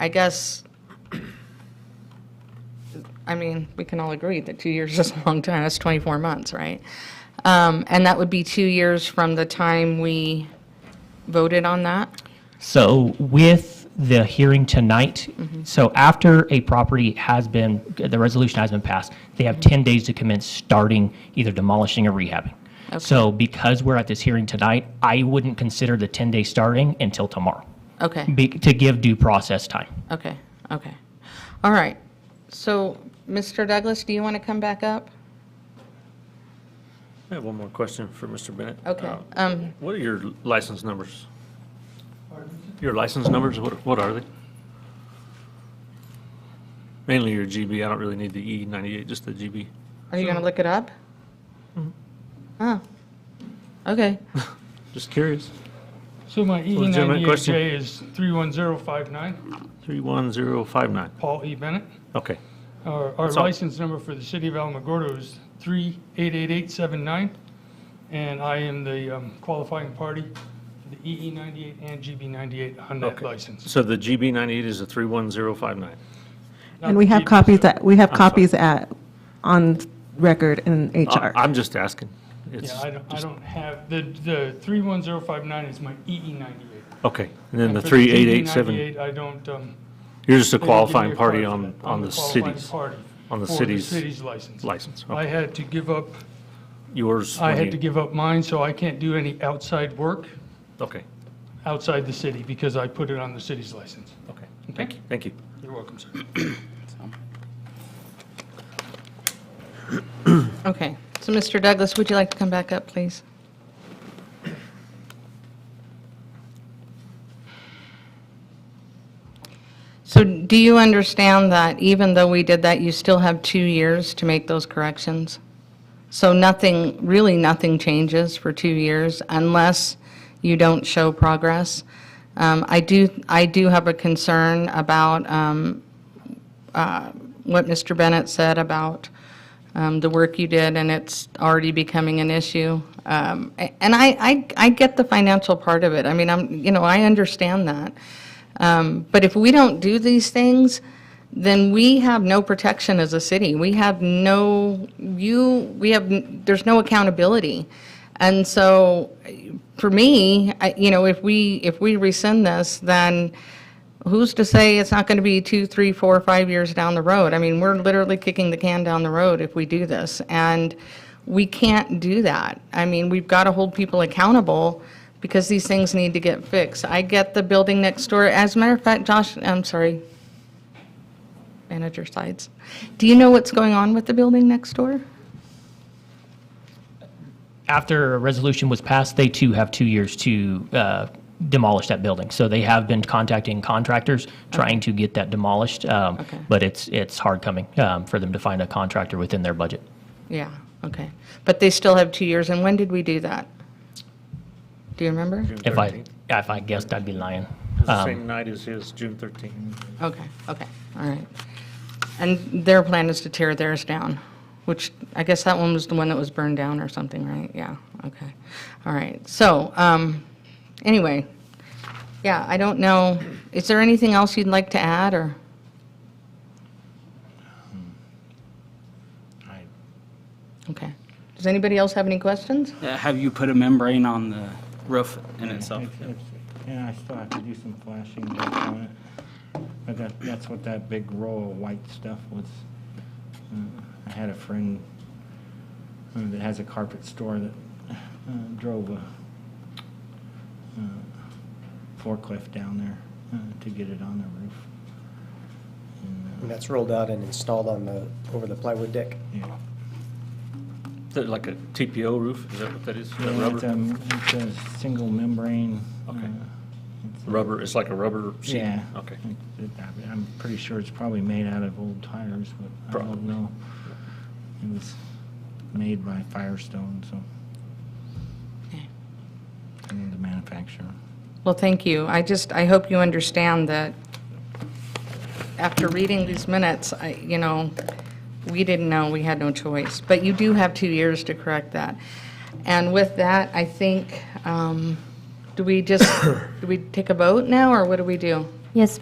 I guess, I mean, we can all agree that two years is a long time, that's 24 months, right? Um, And that would be two years from the time we voted on that? So with the hearing tonight, so after a property has been, the resolution has been passed, they have 10 days to commence starting either demolishing or rehabbing. So because we're at this hearing tonight, I wouldn't consider the 10-day starting until tomorrow, Okay, be- to give due process time. okay, okay. All right, so, Mr. Douglas, do you want to come back up? I have one more question for Mr. Bennett. Okay, Uh, um, What are your license numbers? Your license numbers, what, what are they? Mainly your GB, I don't really need the E ninety-eight, just the GB. are you going to look it up? Oh, okay. Just curious. So my E Legitimate ninety-eight question. J is three one zero five nine, Three one zero five nine. Paul E. Bennett. Okay. Our, our all. license number for the city of Alamogordo is three eight eight eight seven nine. And I am the um, qualifying party for the EE ninety-eight and GB ninety-eight on that Okay. license. So the GB ninety-eight is a three one zero five nine. Not And we have GB. copies that, we have copies at, on record in HR. I'm just asking. It's Yeah, I don't, I just- don't have, the, the three one zero five nine is my EE ninety-eight. Okay, and then the three eight eight seven, E I don't, um. you're just a they don't give me qualifying a party card for on, that. I'm on the qualifying city's party on the for city's city's license. license. I had to give up Yours. I when had you- to give up mine, so I can't do any outside work Okay, outside the city because I put it on the city's license. okay, thank you, thank you. You're welcome, sir. Okay, so Mr. Douglas, would you like to come back up, please? So do you understand that even though we did that, you still have two years to make those corrections? So nothing, really nothing changes for two years unless you don't show progress. Um, I do, I do have a concern about um, uh, what Mr. Bennett said about um, the work you did, and it's already becoming an issue. Um, a- And I, I, I get the financial part of it. I mean, I'm, you know, I understand that. Um, But if we don't do these things, then we have no protection as a city. We have no, you, we have, n- there's no accountability. And so, for me, I- you know, if we, if we rescind this, then who's to say it's not going to be two, three, four, five years down the road? I mean, we're literally kicking the can down the road if we do this, and we can't do that. I mean, we've got to hold people accountable because these things need to get fixed. I get the building next door, as a matter of fact, Josh, I'm sorry, manager sides. Do you know what's going on with the building next door? After a resolution was passed, they too have two years to uh, demolish that building. So they have been contacting contractors, trying to get that demolished, um, Okay. but it's, it's hard coming um, for them to find a contractor within their budget. Yeah, okay. But they still have two years, and when did we do that? Do you remember? If I, if I guessed, I'd be lying. The Um, same night as his, June thirteenth. Okay, okay, all right. And their plan is to tear theirs down, which, I guess that one was the one that was burned down or something, right? Yeah, okay, all right. So, um, anyway, yeah, I don't know, is there anything else you'd like to add, or? Okay. Does anybody else have any questions? Uh, Have you put a membrane on the roof in itself? Yeah, I still have to do some flashing back on it. But that, that's what that big roll of white stuff was. Uh, I had a friend uh, that has a carpet store that uh, drove a uh, forklift down there uh, to get it on the roof. uh, And that's rolled out and installed on the, over the plywood deck. Yeah. Is that like a TPO roof? Is that what that is? That Yeah, It's rubber? a, it's a single membrane. Okay. uh, Rubber, it's like a rubber sheet? Yeah. Okay. It- it- I- I'm pretty sure it's probably made out of old tires, but I don't Probably. know. It was made by Firestone, so. Okay. And the manufacturer. Well, thank you. I just, I hope you understand that after reading these minutes, I, you know, we didn't know, we had no choice. But you do have two years to correct that. And with that, I think, um, do we just, do we take a vote now, or what do we do? Yes,